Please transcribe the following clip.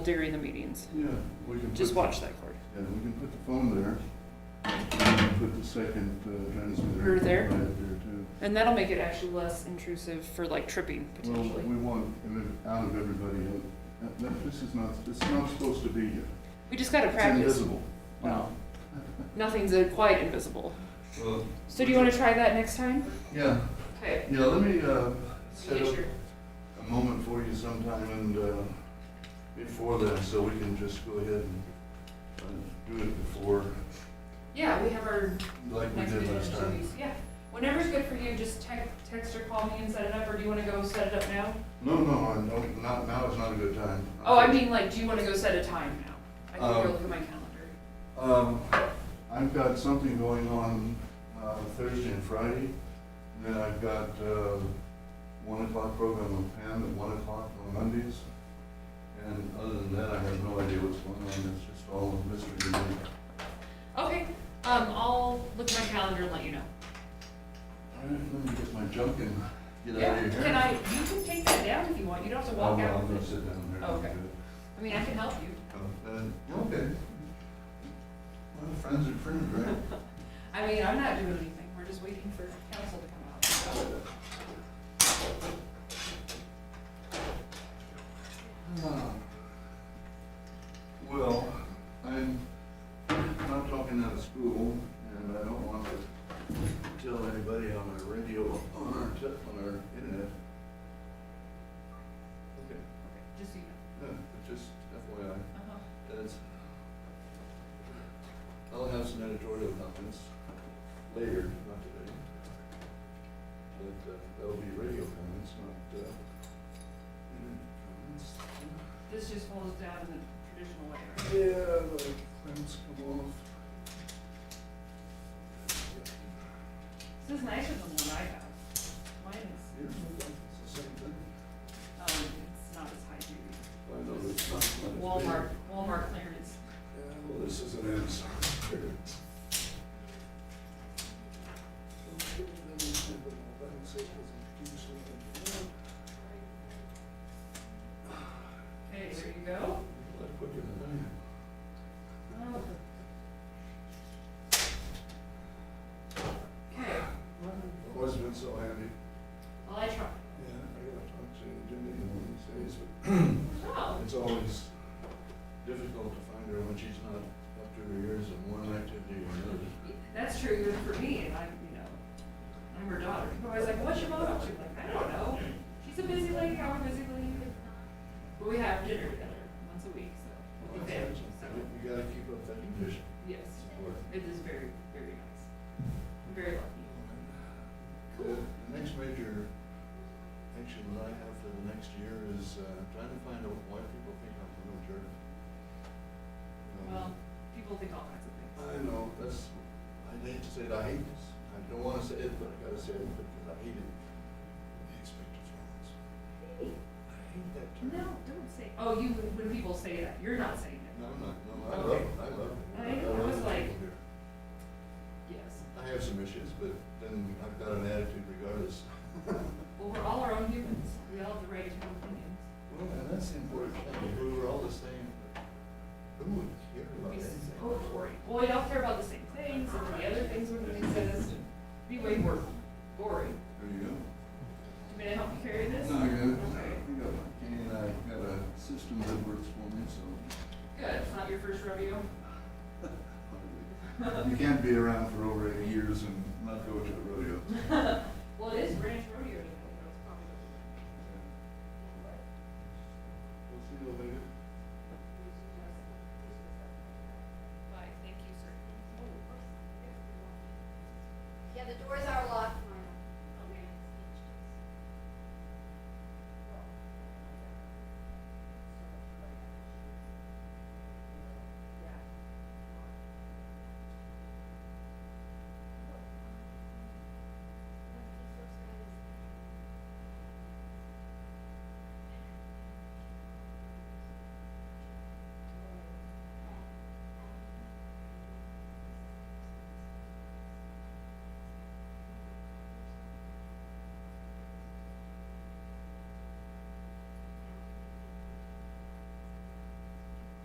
during the meetings. Yeah, we can. Just put- watch that cord. Yeah, we can put the phone there. And we can Put the second uh, transmitter. Or there. right there, too. And that'll make it actually less intrusive for like tripping Well, potentially. we want it out of everybody. else. That- that- This is not, it's not supposed to be here. We just gotta It's practice. invisible. Well, nothing's uh, quite invisible. Well, So do you wanna try that next time? Yeah, Okay. yeah, let me uh, set Make up sure. a moment for you sometime and uh, before that, so we can just go ahead and uh, do it before, Yeah, we have our like we next did meeting in last two time. weeks. Yeah. Whenever's good for you, just te- text or call me and set it up, or do you wanna go set it up now? No, no, I don't, not, now is not a good time. Oh, I mean, like, do you wanna go set a time now? I can Um, go look at my calendar. Um, I've got something going on, uh, Thursday and Friday, and then I've got, uh, one o'clock program with Pam at one o'clock on Mondays. And other than that, I have no idea what's going on, it's just all a mystery to me. Okay, um, I'll look at my calendar and let you know. All right, let me get my junk and get out Yeah, of here. can I, you can take that down if you want, you don't have to I'll, walk I'll out go with it. sit down there. and Okay. do it. I mean, I can help you. Oh, uh, Okay. Well, friends are friends, right? I mean, I'm not doing anything, we're just waiting for council to come out. so. Ah. Well, I'm not talking out of school, and I don't want to tell anybody on our radio, on our, te- on our internet. Okay, Okay, Just so you know. no, but just FYI, Uh-huh. that's, I'll have some editorial comments later, not today. But uh, that'll be radio comments, not, uh, internet comments. This just folds down in the traditional way, right? Yeah, the clamps come off. This is nicer than what I have. Mine is, Here's the one, it's the same thing. um, it's not as high duty. I know it's not much bigger. Walmart, Walmart clearance. Yeah, well, this is an Amazon. Okay, there you go. Oh. Okay, Always been so handy. well, I try. Yeah, I gotta talk to Jimmy one of these days, but Oh, It's always difficult to find her when she's not up to her ears in one activity or another. that's true even for me, and I'm, you know, I'm her daughter. People are always like, what's your mom up to? Like, I don't know. She's a busy lady, I'm a busy lady. But we have dinner together once a week, so. we'll be there, so, You gotta keep up that condition. Yes, it is very, very nice. I'm very lucky. The the next major action that I have for the next year is uh, trying to find out why people think I'm a little jerk. Um, Well, people think all kinds of I know, that's, I hate to say it, I hate this. I don't wanna say it, but I gotta say it because I hate it. The expected performance. things. I hate that term. No, don't say, oh, you, when people say that, you're not saying No, I'm not, no, I Okay. love, it. I love. it. I know, I love was the like- people here. it, yes. I have some issues, but then I've got an attitude regardless. Well, we're all our own humans, we all have the right to have opinions. Well, and that's the important thing, we were all the same, but who would care about We s- anything? oh, boring. Well, we all care about the same things, and the other things would make sense, be way more boring. There you go. You gonna help me carry this? No, I got it. Okay, I got my cane, I got a system that works for me, so. good, it's not your first rodeo. You can't be around for over eighty years and not go to a rodeo. Well, it is ranch rodeo,